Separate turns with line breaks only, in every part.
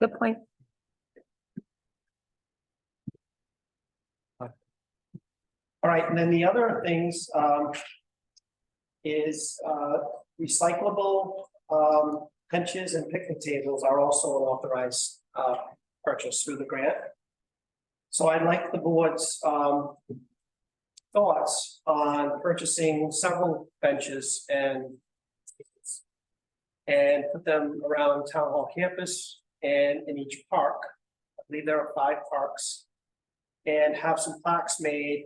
Good point.
All right, and then the other things, um. Is, uh, recyclable, um, benches and picnic tables are also an authorized, uh, purchase through the grant. So I'd like the board's, um. Thoughts on purchasing several benches and. tables And put them around town hall campus and in each park. I believe there are five parks. And have some plaques made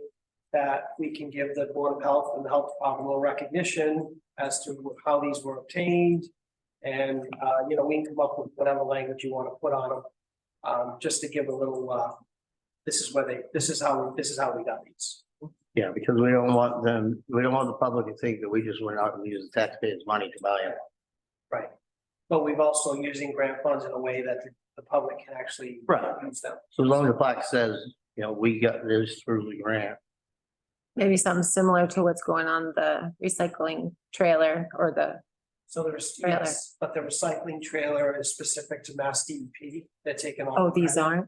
that we can give the Board of Health and the Health Department a little recognition as to how these were obtained. And, uh, you know, we can come up with whatever language you want to put on them, um, just to give a little, uh, this is where they, this is how, this is how we got these.
Yeah, because we don't want them, we don't want the public to think that we just went out and used the taxpayers' money to buy them.
But we've also using grant funds in a way that the, the public can actually
Right.
use them.
So as long as the plaque says, you know, we got this through the grant.
Maybe something similar to what's going on the recycling trailer or the,
So there's,
Trailer.
yes, but the recycling trailer is specific to Mass DEP. They're taking all.
oh, these aren't?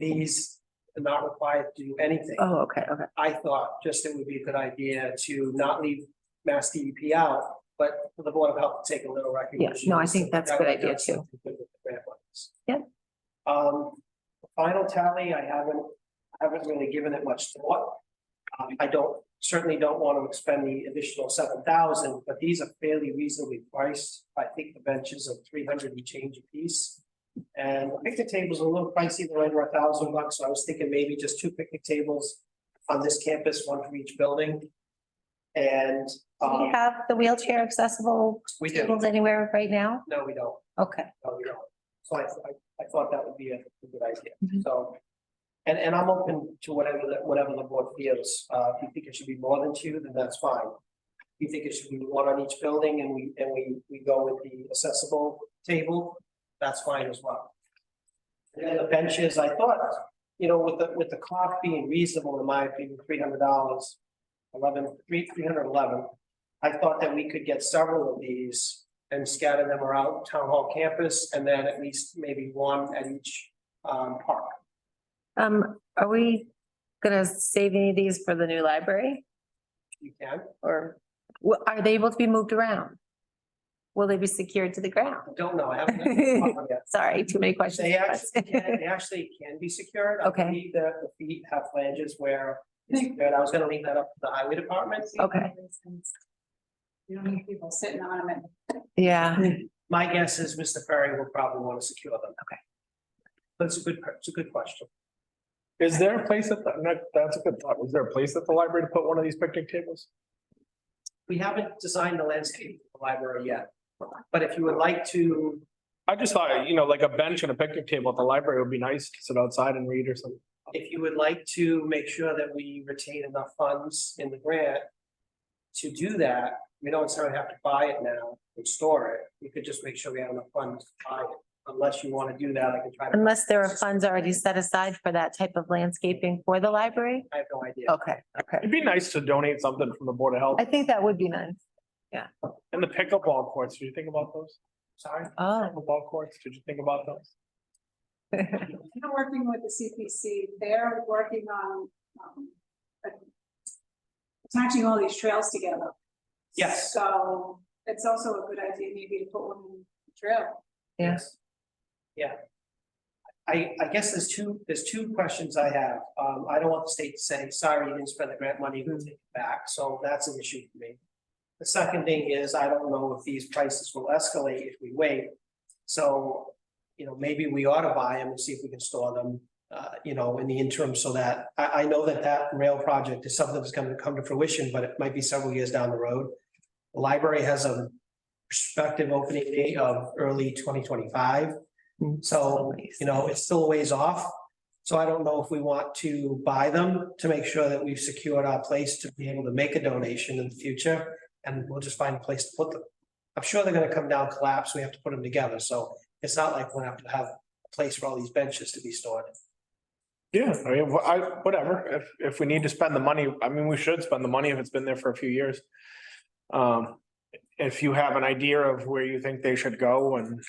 These are not required to do anything.
Oh, okay, okay.
I thought just it would be a good idea to not leave Mass DEP out, but for the Board of Health to take a little recognition.
no, I think that's a good idea,
That's
too.
something good with the grant monies.
Yep.
Um, the final tally, I haven't, I haven't really given it much thought. Um, I don't, certainly don't want to expend the additional seven thousand, but these are fairly reasonably priced. I think the benches are three hundred and change a piece. And the picnic tables are a little pricey, they're under a thousand bucks, so I was thinking maybe just two picnic tables on this campus, one for each building. And,
Do
um,
we have the wheelchair accessible
we do,
tables anywhere right now?
no, we don't.
Okay.
No, we don't. So I, I, I thought that would be a a good idea,
Mhm.
so. And, and I'm open to whatever, the- whatever the board feels, uh, if you think it should be more than two, then that's fine. If you think it should be one on each building and we, and we, we go with the accessible table, that's fine as well. And then the benches, I thought, you know, with the, with the cost being reasonable, in my opinion, three hundred dollars, eleven, three, three hundred eleven. I thought that we could get several of these and scatter them around town hall campus, and then at least maybe one at each um park.
Um, are we gonna save any of these for the new library
You can,
or wha- are they able to be moved around? Will they be secured to the ground?
I don't know, I haven't. done that one yet.
Sorry, too many questions.
They actually can, they actually can be secured. I
Okay. Hmm.
believe The the feet have flanges where, it's secured. I was gonna leave that up to the highway department.
Okay.
You don't need people sitting on them.
Yeah,
My guess is Mr. Ferry will probably want to secure them.
Okay.
That's a good, it's a good question.
Is there a place at the, no, that's a good thought. Was there a place at the library to put one of these picnic tables?
We haven't designed the landscape of the library yet, but if you would like to,
I just thought, you know, like a bench and a picnic table at the library would be nice to sit outside and read or something.
if you would like to make sure that we retain enough funds in the grant. To do that, we don't necessarily have to buy it now and store it, we could just make sure we have enough funds to buy it, unless you want to do that, I can try to,
unless there are funds already set aside for that type of landscaping for the library?
I have no idea.
Okay, okay.
It'd be nice to donate something from the Board of Health
I think that would be nice.
and the pickleball courts. Did you think about those?
Sorry,
Oh.
Pickleball courts, did you think about those?
They're working with the CPC, they're working on, um, attaching all these trails together.
Yes.
So it's also a good idea maybe to put one in the trail.
yes. Yeah. I, I guess there's two, there's two questions I have, um, I don't want the state to say, sorry, you didn't spend the grant money, we'll take it back, so that's an issue for me. The second thing is, I don't know if these prices will escalate if we wait. So, you know, maybe we ought to buy them and see if we can store them, uh, you know, in the interim so that, I, I know that that rail project is something that's gonna come to fruition, but it might be several years down the road. The library has a prospective opening date of early twenty twenty-five. So, you know, it's still a ways off. So I don't know if we want to buy them to make sure that we've secured our place to be able to make a donation in the future. And we'll just find a place to put them. I'm sure they're gonna come down, collapse, we have to put them together, so it's not like we're gonna have to have a place for all these benches to be stored.
Yeah, I mean, wh- I, whatever, if, if we need to spend the money, I mean, we should spend the money if it's been there for a few years. Um, if you have an idea of where you think they should go and